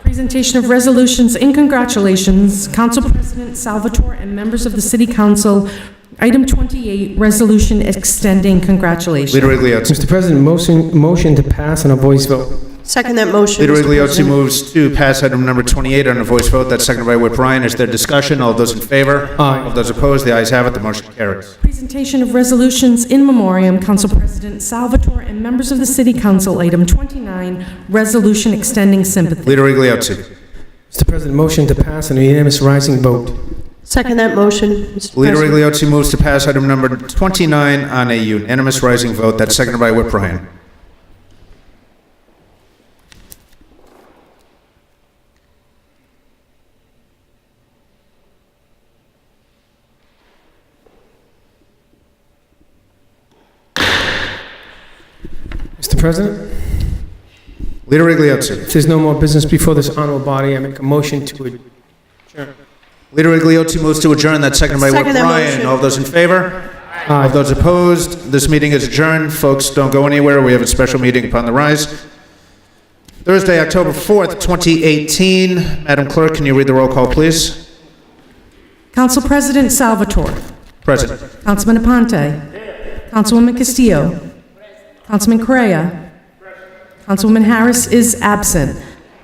Presentation of resolutions and congratulations, Council President Salvatore and members of the City Council. Item 28, resolution extending congratulations. Leader Igliotti. Mr. President, motion, motion to pass on a voice vote. Second that motion, Leader Mr. Igliotti President. moves to pass item number 28 on a voice vote. That's seconded by Whip Ryan. Is there discussion? All those in favor? Aye. All those opposed? The ayes have it. The motion carries. Presentation of resolutions in memoriam, Council President Salvatore and members of the City Council. Item 29, resolution extending sympathy. Leader Igliotti. Mr. President, motion to pass on a unanimous rising vote. Second that motion, Mr. Leader President. Igliotti moves to pass item number 29 on a unanimous rising vote. That's seconded by Whip Ryan. Mr. President, Leader Igliotti. if there's no more business before this honorable body, I make a motion to adjourn. Leader Igliotti moves to adjourn. That's seconded by Whip Second that Ryan. motion. All those in favor? All Aye. those opposed? This meeting is adjourned. Folks, don't go anywhere. We have a special meeting upon the rise. Thursday, October 4th, 2018. Madam Clerk, can you read the roll call, please? Council President Salvatore. President. Councilman Aponte. Councilwoman Castillo. Councilman Correa. Councilwoman Harris is absent.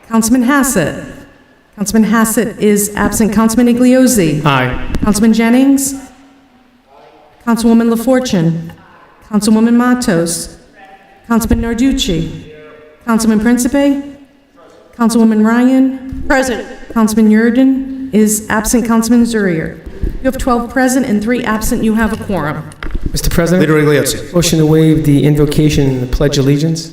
Councilman Hassett. Councilman Hassett is absent. Councilman Igliozzi. Aye. Councilman Jennings. Councilwoman LaFortune. Councilwoman Matos. Councilman Narducci. Councilman Principe. Councilwoman Ryan. President. Councilman Yurden is absent. Councilman Zurrier. You have 12 present and three absent. You have a quorum. Mr. President, Leader Igliotti. motion to waive the invocation and the pledge allegiance.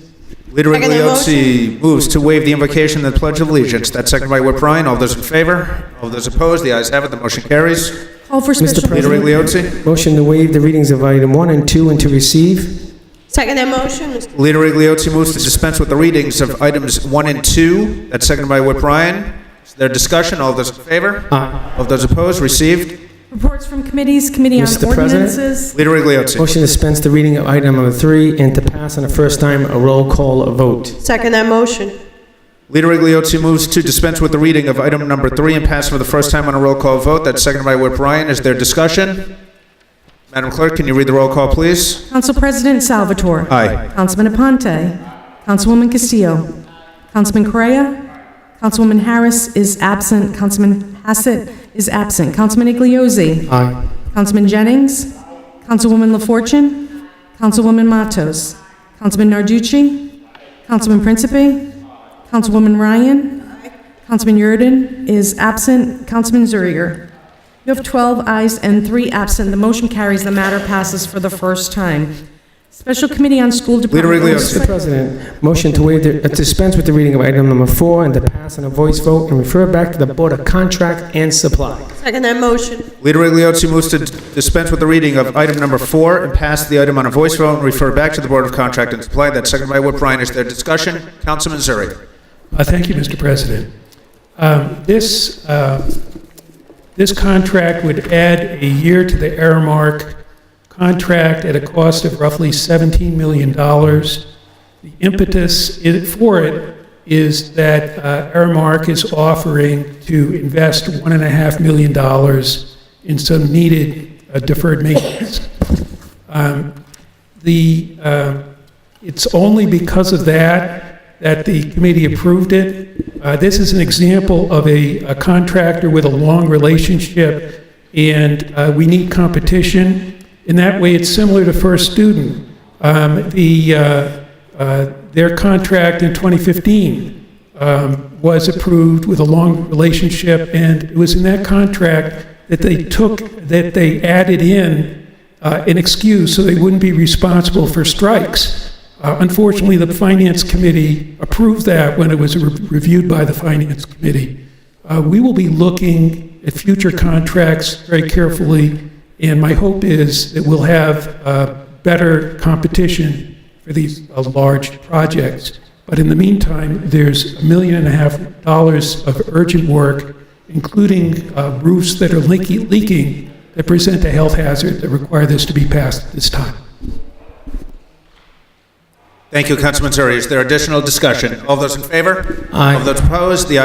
Leader Second the Igliotti moves to waive the invocation and the Pledge of Allegiance. That's seconded by Whip Ryan. All those in favor? All those opposed? The ayes have it. The motion carries. Call for Mr. special. Leader President. Igliotti. Motion to waive the readings of item one and two and to receive. Second that motion, Mr. Leader Igliotti moves to dispense with the readings of items one and two. That's seconded by Whip Ryan. Is there discussion? All those in favor? Aye. All those opposed? Received. Reports from committees, Committee on Mr. President. Ordinances. Leader Igliotti. Motion to dispense the reading of item number three and to pass on a first time a roll call vote. Second that motion. Leader Igliotti moves to dispense with the reading of item number three and pass for the first time on a roll call vote. That's seconded by Whip Ryan. Is there discussion? Madam Clerk, can you read the roll call, please? Council President Salvatore. Uh, Aye. Councilman Aponte. Councilwoman Castillo. Councilman Correa. Councilwoman Harris is absent. Councilman Hassett is absent. Councilman Igliozzi. Aye. Councilman Jennings. Councilwoman LaFortune. Councilwoman Matos. Councilman Narducci. Councilman Principe. Councilwoman Ryan. Councilman Yurden is absent. Councilman Zurrier. You have 12 ayes and 3 absent. The motion carries. The matter passes for the first time. Special Committee on School Leader Department... Iglesias. Mr. President, motion to waive, the- uh, dispense with the reading of item number four and to pass on a voice vote and refer back to the Board of Contract and Supply. Second that motion. Leader Igliotti moves to dispense with the reading of item number four and pass the item on a voice vote and refer back to the Board of Contract and Supply. That's seconded by Whip Ryan. Is there discussion? Councilman Zurich. Uh, Thank you, Mr. President. Um, This, uh, this contract would add a year to the Aramark contract at a cost of roughly $17 million. The impetus i- for it is that uh, Aramark is offering to invest $1.5 million in some needed uh, deferred maintenance. Um, The, uh, it's only because of that that the committee approved it. Uh, This is an example of a a contractor with a long relationship, and uh, we need competition. In that way, it's similar to First Student. Um, The, uh, uh, their contract in 2015 um, was approved with a long relationship, and it was in that contract that they took, that they added in uh, an excuse so they wouldn't be responsible for strikes. Uh, Unfortunately, the Finance Committee approved that when it was re- reviewed by the Finance Committee. Uh, We will be looking at future contracts very carefully, and my hope is that we'll have uh, better competition for these uh, large projects. But in the meantime, there's a million and a half dollars of urgent work, including uh, roofs that are leaky- leaking, that present a health hazard that require this to be passed at this time. Thank you, Councilman Zurich. Is there additional discussion? All those in favor? Aye. All those opposed? The ayes